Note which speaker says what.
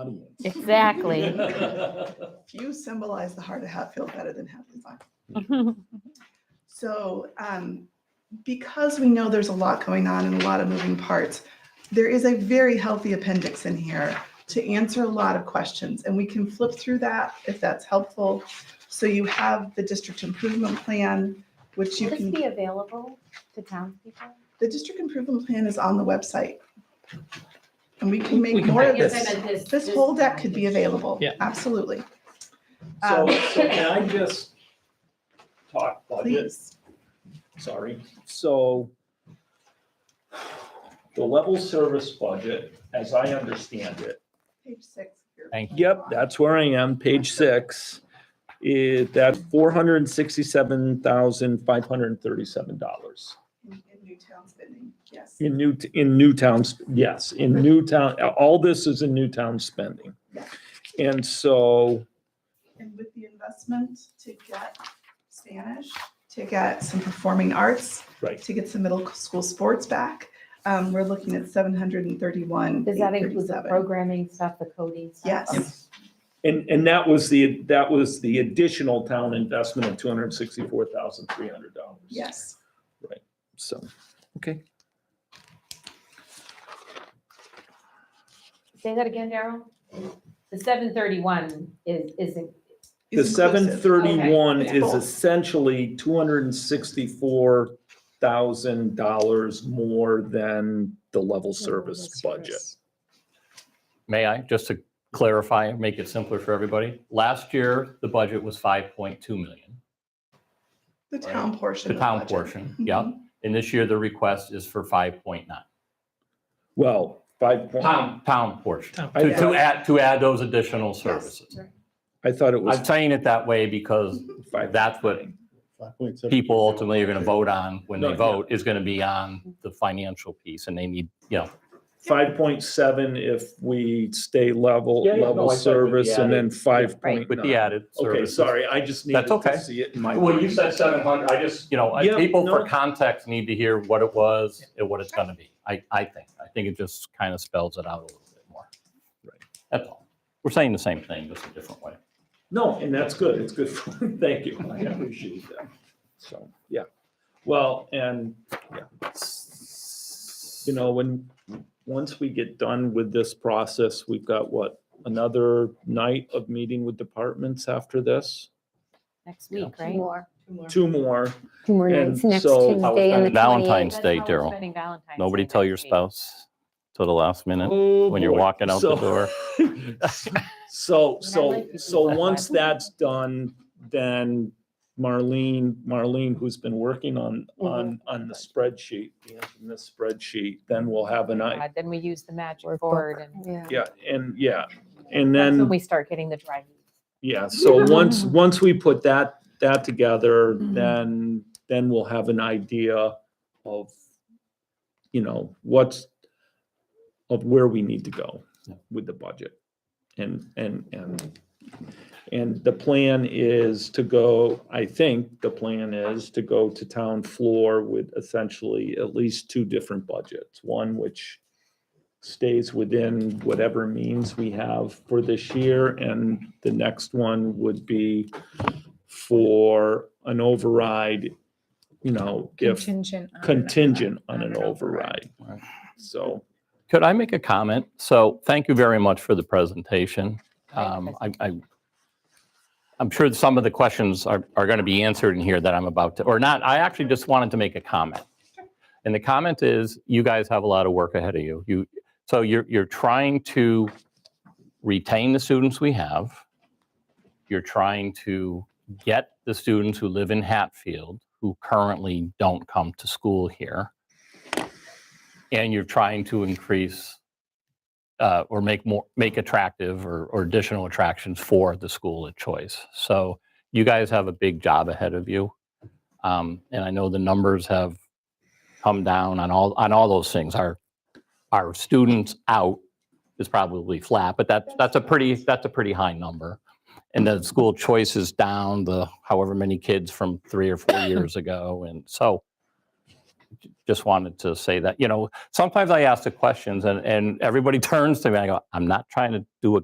Speaker 1: audience.
Speaker 2: Exactly.
Speaker 3: Few symbolize the heart of Hatfield better than Hatfield Farm. So, um, because we know there's a lot going on and a lot of moving parts, there is a very healthy appendix in here to answer a lot of questions, and we can flip through that if that's helpful. So you have the district improvement plan, which you
Speaker 4: Will this
Speaker 3: can,
Speaker 4: be available to townspeople?
Speaker 3: the district improvement plan is on the website. And we can
Speaker 1: We
Speaker 3: make
Speaker 1: can
Speaker 3: more of
Speaker 1: put
Speaker 3: this. This whole deck could be available.
Speaker 1: Yeah.
Speaker 3: Absolutely.
Speaker 1: So,
Speaker 3: Um,
Speaker 1: so can I just talk budget?
Speaker 3: Please.
Speaker 1: Sorry. So the level service budget, as I understand it,
Speaker 3: Page six. here.
Speaker 5: Thank
Speaker 6: Yep, that's where I am, page six. It, that's four hundred and sixty-seven thousand, five hundred and thirty-seven dollars.
Speaker 3: In in Newtown spending, yes.
Speaker 6: In new, in new towns, yes, in new town, all this is in new town spending. And so,
Speaker 3: And with the investment to get Spanish, to get some performing arts,
Speaker 6: right,
Speaker 3: to get some middle school sports back, um, we're looking at seven hundred and thirty-one.
Speaker 4: Does that include the programming stuff, the coding stuff?
Speaker 3: Yes.
Speaker 6: and, and that was the, that was the additional town investment of two hundred and sixty-four thousand, three hundred dollars.
Speaker 3: Yes.
Speaker 6: So, okay,
Speaker 4: Say that again, Daryl?
Speaker 2: The seven thirty-one is, isn't,
Speaker 6: the
Speaker 3: It's inclusive.
Speaker 6: seven thirty-one
Speaker 3: Okay.
Speaker 6: is essentially two hundred and sixty-four thousand dollars more than the level service budget.
Speaker 5: May I, just to clarify and make it simpler for everybody? Last year, the budget was 5.2 million,
Speaker 3: The town portion.
Speaker 5: the
Speaker 3: of
Speaker 5: town
Speaker 3: budget.
Speaker 5: portion, yeah.
Speaker 3: Mhm.
Speaker 5: And this year, the request is for 5.9,
Speaker 6: Well, five point,
Speaker 5: pound, pound portion,
Speaker 1: Town.
Speaker 5: to, to
Speaker 3: Yes.
Speaker 5: add, to add those additional
Speaker 3: Yes.
Speaker 5: services.
Speaker 6: I thought it was
Speaker 5: I'm saying it that way because
Speaker 6: five.
Speaker 5: that's what people ultimately are going to vote on when
Speaker 6: No,
Speaker 5: they
Speaker 6: yeah.
Speaker 5: vote, is going to be on the financial piece, and they need, you know,
Speaker 6: Five point seven if we stay level,
Speaker 5: Yeah, yeah, no, I
Speaker 6: level
Speaker 5: thought it would be
Speaker 6: service, and then five point
Speaker 5: with the
Speaker 6: nine.
Speaker 5: added
Speaker 6: Okay,
Speaker 5: services.
Speaker 6: sorry, I just needed
Speaker 5: That's okay.
Speaker 6: to see it in my.
Speaker 5: Well, you said seven hundred, I just, you know, I-
Speaker 6: Yeah,
Speaker 5: people for
Speaker 6: no.
Speaker 5: context need to hear what it was and what it's gonna be. I, I think, I think it just kind of spells it out a little bit more.
Speaker 6: Right.
Speaker 5: That's all. We're saying the same thing, just a different way.
Speaker 6: No, and that's good, it's good, for thank you, I appreciate that. So, yeah, well, and, yeah. You know, when, once we get done with this process, we've got what, another night of meeting with departments after this?
Speaker 2: next
Speaker 5: Yeah.
Speaker 2: week,
Speaker 4: Right?
Speaker 2: right?
Speaker 4: More.
Speaker 6: Two
Speaker 3: Two more.
Speaker 6: more,
Speaker 7: Two more
Speaker 6: And
Speaker 7: nights, next
Speaker 6: so-
Speaker 7: Tuesday and the 28th.
Speaker 5: Valentine's Day, Daryl. Nobody tell your spouse till the last minute
Speaker 6: when
Speaker 5: when you're walking out the door.
Speaker 6: So,
Speaker 2: And I
Speaker 6: so,
Speaker 2: like to do
Speaker 6: so
Speaker 2: that.
Speaker 6: once that's done, then Marlene, Marlene, who's been working on,
Speaker 2: Mm-hmm.
Speaker 6: on, on the spreadsheet, in this spreadsheet, then we'll have an eye.
Speaker 2: Then we use the magic
Speaker 7: Workbook.
Speaker 2: board and
Speaker 7: Yeah.
Speaker 6: Yeah, and yeah, and
Speaker 2: that's when
Speaker 6: then,
Speaker 2: we start getting the dry heat.
Speaker 6: yeah, so once, once we put that, that together,
Speaker 2: Mm-hmm.
Speaker 6: then, then we'll have an idea of, you know, what's, of where we need to go
Speaker 5: Yeah.
Speaker 6: with the budget. And, and, and, and the plan is to go, I think the plan is to go to town floor with essentially at least two different budgets. One which stays within whatever means we have for this year, and the next one would be for an override, you know, if
Speaker 8: Contingent. on an override.
Speaker 6: contingent on an
Speaker 8: an
Speaker 6: override.
Speaker 8: override.
Speaker 5: Right.
Speaker 6: So,
Speaker 5: Could I make a comment? So thank you very much for the presentation.
Speaker 2: Thank you,
Speaker 5: Um, I, I, I'm sure some of the questions are, are going to be answered in here that I'm about to, or not. I actually just wanted to make a comment. And the comment is, you guys have a lot of work ahead of you. You, so you're, you're trying to retain the students we have. You're trying to get the students who live in Hatfield, who currently don't come to school here and you're trying to increase uh, or make more make attractive or, or additional attractions for the school of choice. So you guys have a big job ahead of you, um, and I know the numbers have come down on all on all those things. Our our students out is probably flat, but that's that's a pretty that's a pretty high number. And the school choice is down the however many kids from three or four years ago, and so just wanted to say that you know sometimes I ask the questions and, and everybody turns to me and I go, I'm not trying to do a